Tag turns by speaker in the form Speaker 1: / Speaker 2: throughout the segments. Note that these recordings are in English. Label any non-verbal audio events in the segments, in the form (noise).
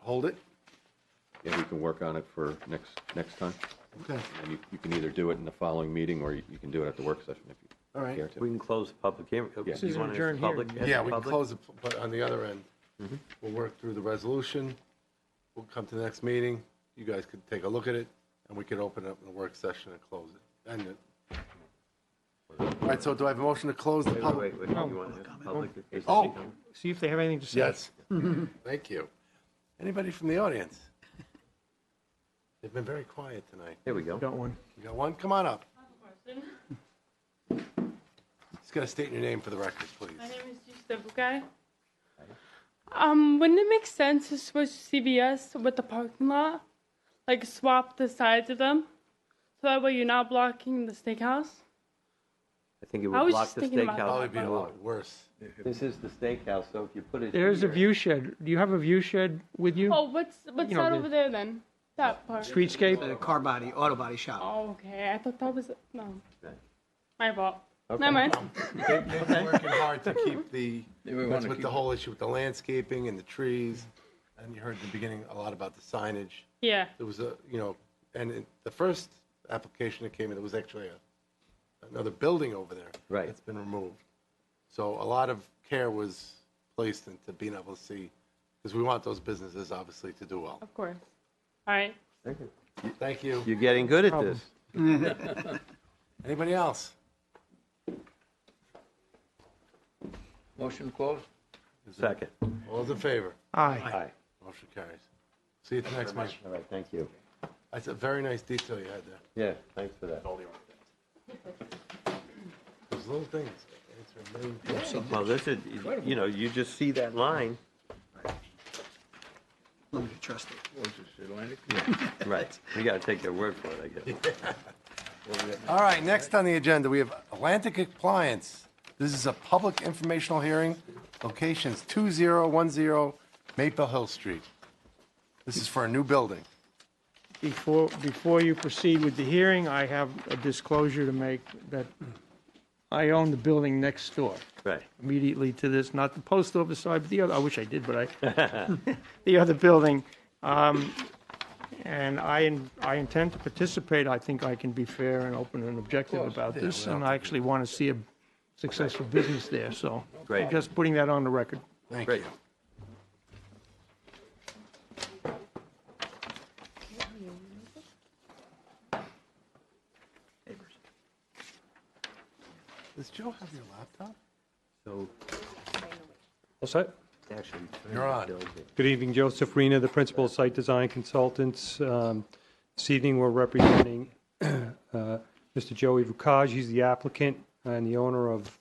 Speaker 1: hold it?
Speaker 2: Yeah, we can work on it for next, next time.
Speaker 1: Okay,
Speaker 2: And you, you can either do it in the following meeting, or you you can do it at the work session if you
Speaker 1: all right.
Speaker 2: care to.
Speaker 3: We can close the public hearing. oh,
Speaker 2: Yeah.
Speaker 3: Do you want to
Speaker 4: adjourned
Speaker 3: public?
Speaker 4: hearing.
Speaker 3: as a
Speaker 1: Yeah, we can
Speaker 3: public? Mm-hmm.
Speaker 1: close it, but on the other end, we'll work through the resolution. We'll come to the next meeting. You guys could take a look at it, and we could open up the work session and close it. End it. All right, so do I have a motion to close the Oh,
Speaker 3: Wait, wait,
Speaker 1: public?
Speaker 3: wait, wait, you want to public? is
Speaker 1: Oh.
Speaker 3: this done?
Speaker 4: See if they have anything to say.
Speaker 3: (laughs)
Speaker 1: Yes. Thank you. Anybody from the audience? They've been very quiet tonight.
Speaker 3: There we go.
Speaker 4: Got one.
Speaker 1: You got one? Come on up. Just gotta state your name for the record, please.
Speaker 5: My name is Justa Bukai. Um, wouldn't it make sense to switch CVS with the parking lot? Like swap the sides of them? So that way you're not blocking the steakhouse?
Speaker 3: I think it
Speaker 5: I
Speaker 3: would
Speaker 5: was
Speaker 3: block
Speaker 5: just
Speaker 3: the
Speaker 5: thinking about
Speaker 3: steakhouse.
Speaker 1: Probably be a lot worse.
Speaker 3: This is the steakhouse, so if you put it.
Speaker 4: There's a
Speaker 3: here-
Speaker 4: view shed. Do you have a view shed with you?
Speaker 5: Oh, what's what's
Speaker 4: You know,
Speaker 5: that
Speaker 4: the-
Speaker 5: over there then? That part.
Speaker 4: Streetscape?
Speaker 6: The car body, auto body shop.
Speaker 5: Oh, okay. I thought that was no.
Speaker 3: Okay.
Speaker 5: My fault.
Speaker 3: Okay.
Speaker 5: Never mind.
Speaker 1: They've been working hard to keep the,
Speaker 7: we
Speaker 1: that's
Speaker 7: wanna
Speaker 1: with the whole issue with the landscaping and the trees. And you heard in the beginning a lot about the signage.
Speaker 5: Yeah.
Speaker 1: There was a, you know, and it- the first application that came in, it was actually a, another building over there.
Speaker 3: Right.
Speaker 1: That's been removed. So a lot of care was placed into being able to see, because we want those businesses obviously to do well.
Speaker 5: Of course. All right.
Speaker 1: Thank you.
Speaker 3: You're getting good at this.
Speaker 1: Anybody else?
Speaker 7: Motion closed?
Speaker 3: Second.
Speaker 1: All those in favor?
Speaker 4: Aye.
Speaker 3: Aye.
Speaker 1: Motion carries. See you at the next meeting.
Speaker 3: All right, thank you.
Speaker 1: That's a very nice detail you had there.
Speaker 3: Yeah, thanks for that.
Speaker 1: Those little things. It's a million things.
Speaker 3: Well, this is, you know, you just see that line.
Speaker 6: Limited trustee.
Speaker 7: Was this Atlantic?
Speaker 3: Right. You got to take their word for it, I guess.
Speaker 1: (laughs) All right, next on the agenda, we have Atlantic Appliance. This is a public informational hearing. Locations 2010 Maple Hill Street. This is for a new building.
Speaker 4: Before, before you proceed with the hearing, I have a disclosure to make that I own the building next door.
Speaker 3: Right.
Speaker 4: immediately to this, not the post office side, but the other, I wish I did, but I, (laughs) the other building. Um, And I, I intend to participate, I think I can be fair and open and objective about this, and I actually want to see a successful business there, so.
Speaker 3: Great.
Speaker 4: Just putting that on the record.
Speaker 1: Thank
Speaker 3: Great.
Speaker 1: you. Does Joe have your laptop?
Speaker 3: So
Speaker 8: All set.
Speaker 3: actually.
Speaker 1: You're on.
Speaker 8: Good evening, Joseph Rena, the principal of Site Design Consultants. Um, This evening, we're representing (clears throat) uh, Mr. Joey Vukaj. He's the applicant and the owner of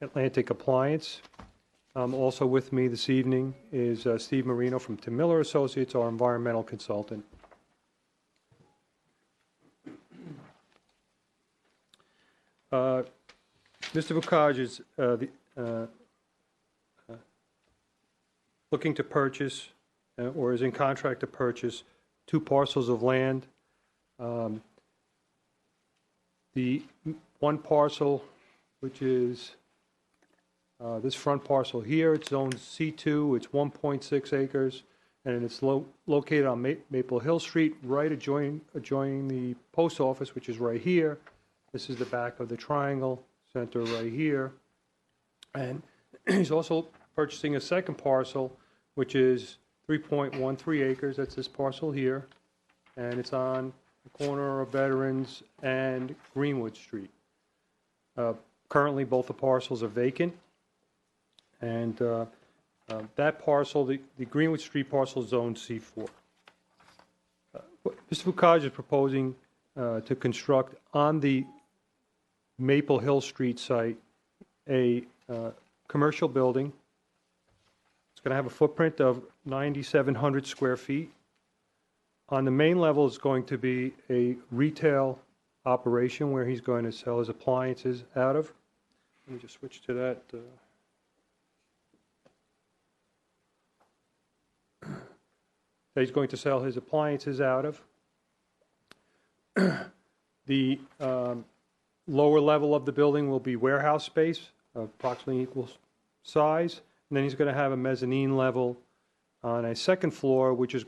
Speaker 8: Atlantic Appliance. Um, Also with me this evening is uh, Steve Marino from Tim Miller Associates, our environmental consultant. Uh, Mr. Vukaj is uh, the uh, looking to purchase uh, or is in contract to purchase two parcels of land. Um, The m- one parcel, which is uh, this front parcel here, it's zoned C2, it's 1.6 acres, and it's lo- located on Ma- Maple Hill Street, right adjoining, adjoining the post office, which is right here. This is the back of the triangle center right here. And (clears throat) he's also purchasing a second parcel, which is 3.13 acres, that's this parcel here, and it's on the corner of Veterans and Greenwood Street. Uh, Currently, both the parcels are vacant, and uh, uh, that parcel, the the Greenwood Street parcel is zoned C4. Uh, what Mr. Fukaj is proposing uh, to construct on the Maple Hill Street site, a uh, commercial building. It's going to have a footprint of 9,700 square feet. On the main level is going to be a retail operation where he's going to sell his appliances out of. Let me just switch to that. uh, That he's going to sell his appliances out of. (clears throat) The um, lower level of the building will be warehouse space, of approximately equal size. And then he's going to have a mezzanine level on a second floor, which is